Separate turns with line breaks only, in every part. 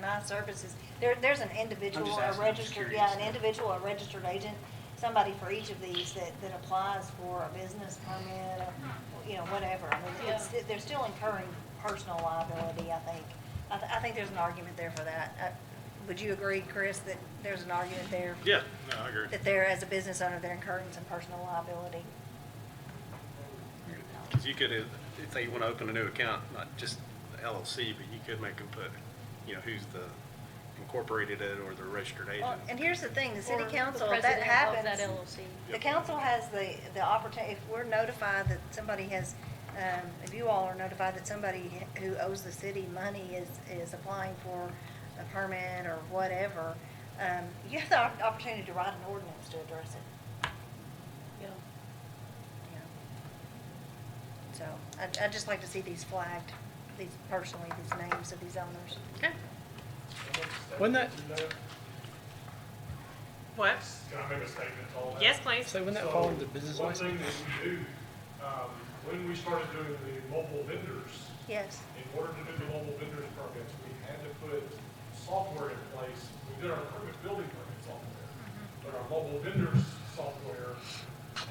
my services, there, there's an individual, a
asking, I'm just
registered, yeah, an
curious.
individual, a registered agent, somebody for each of these that, that applies for a business permit, or, you know, whatever. I mean, it's,
Yeah.
they're still incurring personal liability, I think. I, th- I think there's an argument there for that. Uh, Would you agree, Chris, that there's an argument there?
Yeah, no, I agree.
That they're, as a business owner, they're incurring some personal liability?
Because you could, uh, if they want to open a new account, not just the LLC, but you could make them put, you know, who's the incorporated it or the registered
Well,
agent.
And here's the thing, the city
Or
council,
the
if that
president
happens.
of that LLC.
The council has the, the opportunity, if we're notified that somebody has, um, if you all are notified that somebody who owes the city money is, is applying for a permit or whatever, um, you have the op- opportunity to write an ordinance to address it,
Yeah.
you know. So, I, I'd just like to see these flagged, these personally, these names of these owners.
Okay.
Wasn't that,
What?
Can I make a statement to all that?
Yes, please.
so wouldn't that
So,
fall into business license?
One thing that we do, um, when we started doing the mobile vendors,
Yes,
in order to do the mobile vendors permits, we had to put software in place. We did our permit building permit software, but our mobile vendors software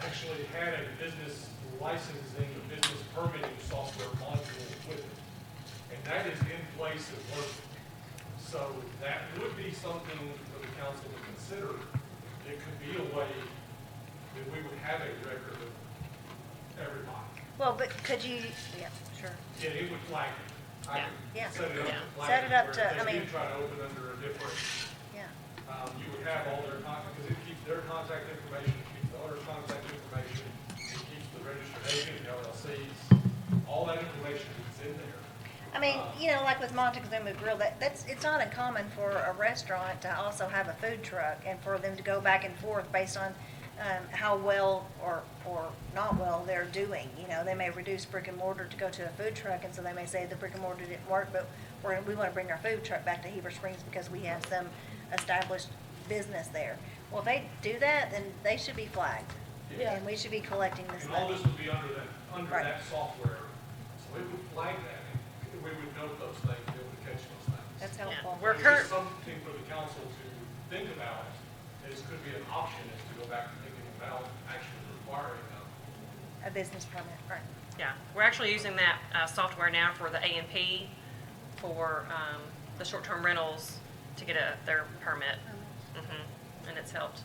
actually had a business licensing, a business permitting software module with it. And that is in place and working. So that would be something for the council to consider. It could be a way that we would have a record of everybody.
well, but could you, yeah, sure.
Yeah, it would flag it. I
Yeah.
could Set it up. to
Yeah.
flag
Set it up to-
whereas
I
If
mean-
you try to open under a different,
Yeah.
um, you would have all their contact, because it keeps their contact information, it keeps the owner's contact information, it keeps the registered agent, the LLCs, all that information is in there.
I mean, you know, like with Montezuma Grill, that, that's, it's not uncommon for a restaurant to also have a food truck and for them to go back and forth based on, um, how well or, or not well they're doing. You know, they may reduce brick and mortar to go to a food truck and so they may say the brick and mortar didn't work, but we're, we wanna bring our food truck back to Heber Springs because we have some established business there. Well, if they do that, then they should be flagged.
Yeah.
And we should be collecting this
And all
money.
this would be under that, under
Right.
that software. So we would flag that, and we would note those things, be able to catch those things.
That's helpful.
We're
It's
cur-
just Something for the council to think about, is could be an option, is to go back and thinking about actually requiring them.
A business permit, right.
Yeah, we're actually using that uh, software now for the A and P, for um, the short-term rentals to get a, their permit. Mhm, And it's helped.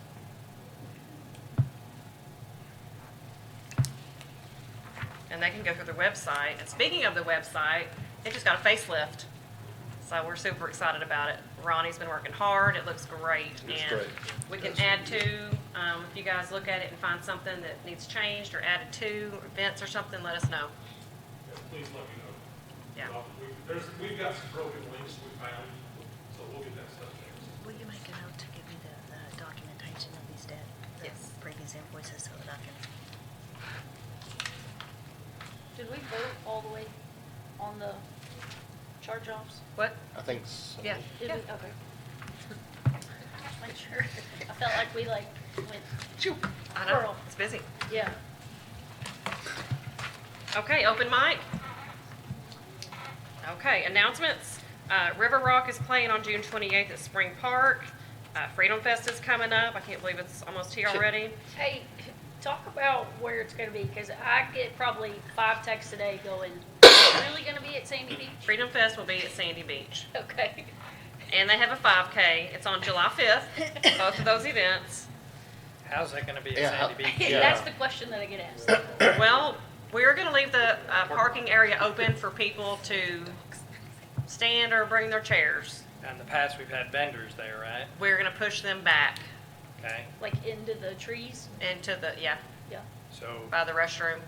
And they can go through their website. And speaking of the website, it just got a facelift. So we're super excited about it. Ronnie's been working hard. It looks great.
It's
and
great.
We can add to, um, if you guys look at it and find something that needs changed or added to, events or something, let us know.
Yeah, Please let me know.
Yeah.
Uh, we- There's, we've got some broken links we found, so we'll get that stuff fixed.
Will you make a note to give me the, the documentation of these debt? the
Yes.
Previous invoices so that I can,
Did we vote all the way on the charge-offs?
What?
I think so.
Yeah.
Did we? Okay. Just make sure. I felt like we like went,
I know,
Girl.
it's busy.
yeah.
Okay, open mic. Okay, announcements. Uh, River Rock is playing on June 28th at Spring Park. Uh, Freedom Fest is coming up. I can't believe it's almost here already.
Hey, talk about where it's gonna be, because I get probably five texts a day going, really gonna be at Sandy Beach?
Freedom Fest will be at Sandy Beach.
Okay.
And they have a 5K. It's on July 5th, both of those events.
How's that gonna be
Yeah,
at
how-
Sandy Beach?
That's the question that I get asked.
Well, we're going to leave the uh, parking area open for people to stand or bring their chairs.
In the past, we've had vendors there, right?
We're going to push them back
Okay,
Like into the trees?
into the, yeah,
Yeah.
so,
by the restroom.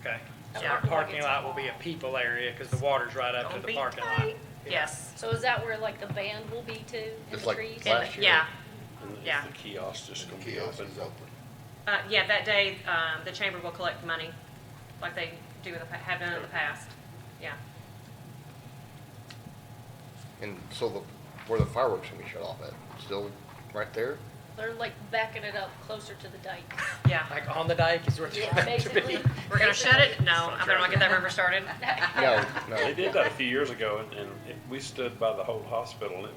okay. So
Uh, Yeah.
our parking lot will be a people area, because the water's right up to
Don't
the
be
parking lot.
tight. Yes.
So is that where like the band will be too, in
It's
the
like
trees?
last year.
Yeah, Yeah.
Is the kiosk just gonna be
Kiosk
open?
is open.
uh, yeah, that day, um, the chamber will collect money, like they do in the, pa- have done in the past, yeah.
And so the, where the fireworks gonna be shut off at, still right there?
They're like backing it up closer to the dike.
Yeah,
Like on the dike is where they're
Yeah,
meant to be.
basically.
we're gonna shut it, no, I better not get that rumor started.
No,
They
no.
did that a few years ago, and, and it- we stood by the whole hospital, and it